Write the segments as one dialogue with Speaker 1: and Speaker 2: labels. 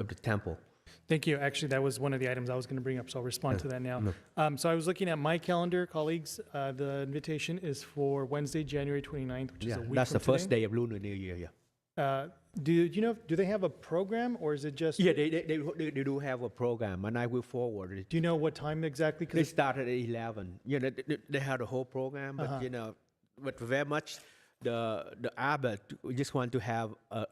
Speaker 1: of the temple.
Speaker 2: Thank you. Actually, that was one of the items I was going to bring up, so I'll respond to that now.
Speaker 1: no.
Speaker 2: Um, So I was looking at my calendar, colleagues. Uh, The invitation is for Wednesday, January 29th, which is
Speaker 1: Yeah,
Speaker 2: a week
Speaker 1: that's the
Speaker 2: from
Speaker 1: first
Speaker 2: today.
Speaker 1: day of Lunar New Year. Yeah,
Speaker 2: Uh, Do do you know, do they have a program, or is it just,
Speaker 1: yeah
Speaker 2: do
Speaker 1: they, they, they, they they do have a program, and I will forward it.
Speaker 2: you know what time exactly?
Speaker 1: They
Speaker 2: 'Cause
Speaker 1: started at 11. You know, they- they, they had a whole program, but
Speaker 2: Uh-huh.
Speaker 1: you know, but very much the the abbot just want to have a,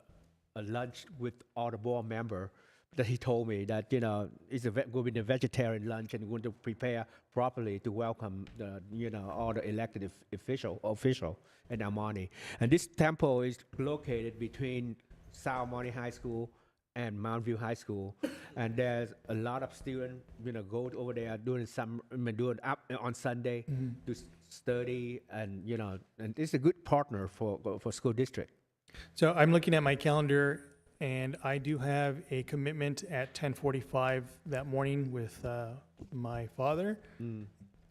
Speaker 1: a lunch with all the board member. That he told me that you know it's a ve- going to be a vegetarian lunch and going to prepare properly to welcome the you know all the elected of- official official in Amani. And this temple is located between South Amani High School and Mount View High School, and there's a lot of students, you know, go over there doing some, I mean, doing up on Sunday to s- study, and you know, and it's a good partner for for school district.
Speaker 2: So I'm looking at my calendar, and I do have a commitment at 10:45 that morning with uh, my father.
Speaker 1: Mm.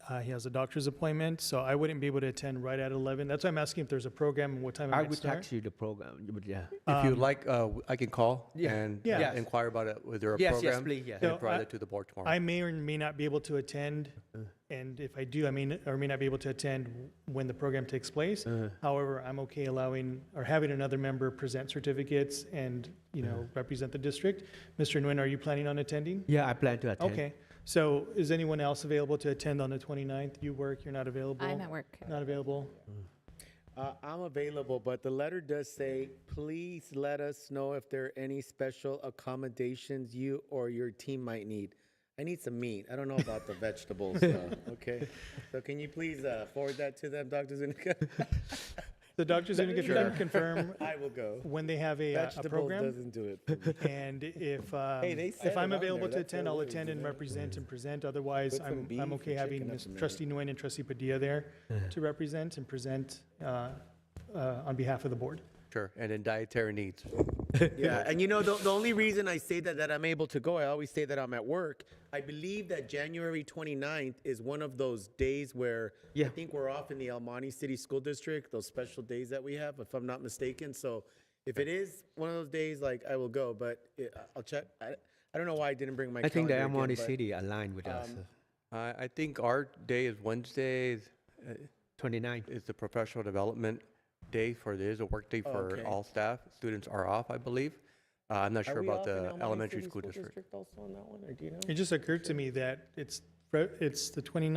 Speaker 2: Uh, He has a doctor's appointment, so I wouldn't be able to attend right at 11. That's why I'm asking if there's a program and what time it
Speaker 1: I
Speaker 2: might
Speaker 1: would
Speaker 2: start.
Speaker 1: text you the program, but yeah.
Speaker 3: If you'd like, uh, I can call
Speaker 1: Yeah.
Speaker 3: and
Speaker 2: Yeah.
Speaker 3: uh,
Speaker 1: Yes.
Speaker 3: inquire about it, whether a
Speaker 1: Yes, yes,
Speaker 3: program.
Speaker 1: please, yes.
Speaker 3: And
Speaker 2: So I-
Speaker 3: provide that to the board tomorrow.
Speaker 2: I may or may not be able to attend,
Speaker 4: Uh-huh.
Speaker 2: and if I do, I may, or may not be able to attend when the program takes place.
Speaker 4: Uh-huh.
Speaker 2: However, I'm okay allowing, or having another member present certificates and, you
Speaker 4: Uh-huh.
Speaker 2: know, represent the district. Mr. Nguyen, are you planning on attending?
Speaker 1: Yeah, I plan to attend.
Speaker 2: Okay, so is anyone else available to attend on the 29th? You work, you're not available?
Speaker 5: I'm at work.
Speaker 2: Not available?
Speaker 4: Uh, I'm available, but the letter does say, please let us know if there are any special accommodations you or your team might need. I need some meat. I don't know about the vegetables, uh, okay? So can you please uh, forward that to them, Dr. Zuniga?
Speaker 2: The doctor's going to get them
Speaker 4: Sure.
Speaker 2: confirm
Speaker 4: I will go.
Speaker 2: when they have a, uh, a
Speaker 4: Vegetables
Speaker 2: program.
Speaker 4: doesn't do it. for me.
Speaker 2: And if, um,
Speaker 4: they
Speaker 2: if
Speaker 4: said
Speaker 2: I'm
Speaker 4: it on
Speaker 2: available
Speaker 4: there,
Speaker 2: to
Speaker 4: that's
Speaker 2: attend,
Speaker 4: their
Speaker 2: I'll
Speaker 4: words,
Speaker 2: attend and
Speaker 4: isn't it?
Speaker 2: represent and present. Otherwise,
Speaker 4: Put some
Speaker 2: I'm,
Speaker 4: beef
Speaker 2: I'm
Speaker 4: and
Speaker 2: okay having
Speaker 4: chicken up
Speaker 2: Ms.
Speaker 4: in there.
Speaker 2: trustee Nguyen and trustee Padilla there to represent and present uh, uh, on behalf of the board.
Speaker 3: Sure, and in dietary needs.
Speaker 4: Yeah, and you know, the, the only reason I say that, that I'm able to go, I always say that I'm at work. I believe that January 29th is one of those days where
Speaker 1: Yeah.
Speaker 4: I think we're off in the El Monte City School District, those special days that we have, if I'm not mistaken. So if it is one of those days, like, I will go, but it, I'll check. I, I don't know why I didn't bring my
Speaker 1: I think the
Speaker 4: calendar again,
Speaker 1: Amani
Speaker 4: but-
Speaker 1: City aligned with us. uh,
Speaker 3: I, I think our day is Wednesday, uh,
Speaker 1: 29.
Speaker 3: is the professional development day for, it is a work day for
Speaker 4: Okay.
Speaker 3: all staff. Students are off, I believe. Uh, I'm not
Speaker 4: Are
Speaker 3: sure
Speaker 4: we
Speaker 3: about
Speaker 4: off in El
Speaker 3: the
Speaker 4: Monte
Speaker 3: elementary
Speaker 4: City
Speaker 3: school district.
Speaker 4: Also on that one, or do you know?
Speaker 2: It just occurred to me that it's, fr- it's the 29th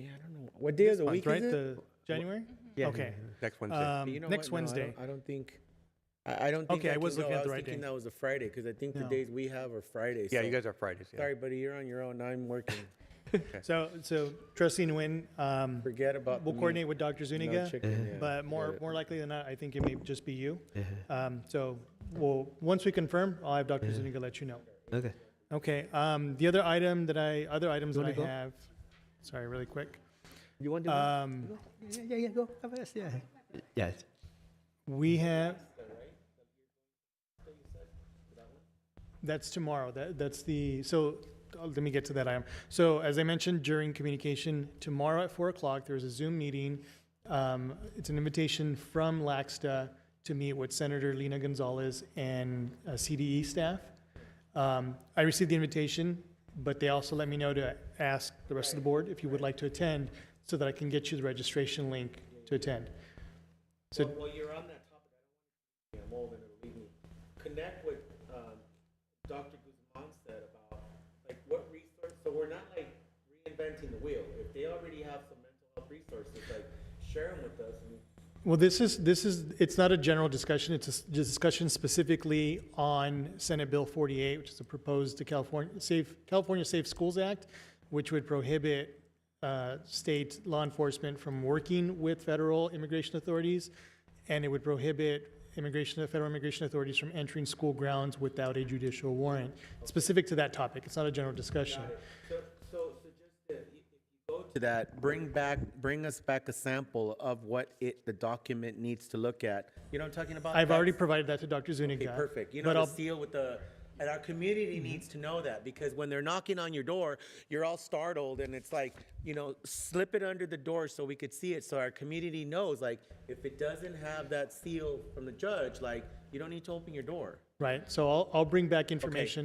Speaker 4: Yeah, I don't know. What day of the
Speaker 2: month,
Speaker 4: week
Speaker 2: right?
Speaker 4: is it?
Speaker 2: The January?
Speaker 1: Yeah.
Speaker 2: Okay.
Speaker 3: Next Wednesday.
Speaker 2: Um,
Speaker 4: You know
Speaker 2: Next
Speaker 4: what? No, I don't-
Speaker 2: Wednesday.
Speaker 4: I don't think, I I don't think.
Speaker 2: Okay, I
Speaker 4: can
Speaker 2: was
Speaker 4: go.
Speaker 2: looking at the
Speaker 4: was
Speaker 2: right
Speaker 4: thinking
Speaker 2: day.
Speaker 4: that was a Friday, because I think the
Speaker 2: No.
Speaker 4: days we have are Fridays.
Speaker 3: Yeah,
Speaker 4: so-
Speaker 3: you guys are Fridays, yeah.
Speaker 4: Sorry, buddy, you're on your own. I'm working.
Speaker 2: So, so trustee Nguyen, um,
Speaker 4: Forget about.
Speaker 2: we'll
Speaker 4: the meat.
Speaker 2: coordinate with Dr.
Speaker 4: No
Speaker 2: Zuniga.
Speaker 3: Mm-hmm.
Speaker 4: chicken, yeah.
Speaker 2: But more,
Speaker 4: Yeah.
Speaker 2: more likely than not, I think it may just be you. Um, so we'll, once we confirm, I'll have Dr. Zuniga let you know.
Speaker 1: Okay.
Speaker 2: Okay, um, the other item that I, other items
Speaker 1: You
Speaker 2: that I
Speaker 1: wanna go?
Speaker 2: have, sorry, really quick.
Speaker 1: You want to?
Speaker 2: Um,
Speaker 1: yeah, yeah, yeah, go. Have us, Yeah. Yes.
Speaker 2: we have. That's tomorrow. That, that's the, so uh, let me get to that item. So as I mentioned during communication, tomorrow at four o'clock, there's a Zoom meeting. Um, it's an invitation from Laxta to meet with Senator Lena Gonzalez and uh, CDE staff. Um, I received the invitation, but they also let me know to ask the rest of the board if you would like to attend so that I can get you the registration link to attend. So
Speaker 4: Well, you're on that topic. I don't want to, I'm old and it'll leave me. Connect with, um, Dr. Guzman said about, like, what resource, so we're not like reinventing the wheel. If they already have some mental health resources, like, share them with us and
Speaker 2: Well, this is, this is, it's not a general discussion, it's a s- discussion specifically on Senate Bill 48, which is a proposed to California, Safe, California Safe Schools Act, which would prohibit uh, state law enforcement from working with federal immigration authorities, and it would prohibit immigration, federal immigration authorities from entering school grounds without a judicial warrant, specific to that topic, it's not a general discussion.
Speaker 4: So, so, so just to, if you go to that, bring back, bring us back a sample of what it, the document needs to look at. You know what I'm talking about?
Speaker 2: I've already
Speaker 4: That's-
Speaker 2: provided that to Dr. Zuniga.
Speaker 4: Okay, perfect. You
Speaker 2: but
Speaker 4: know, the
Speaker 2: I'll- Mm-hmm.
Speaker 4: seal with the, and our community needs to know that because when they're knocking on your door, you're all startled and it's like, you know, slip it under the door so we could see it. So our community knows, like, if it doesn't have that seal from the judge, like, you don't need to open your door.
Speaker 2: Right, so I'll, I'll bring back information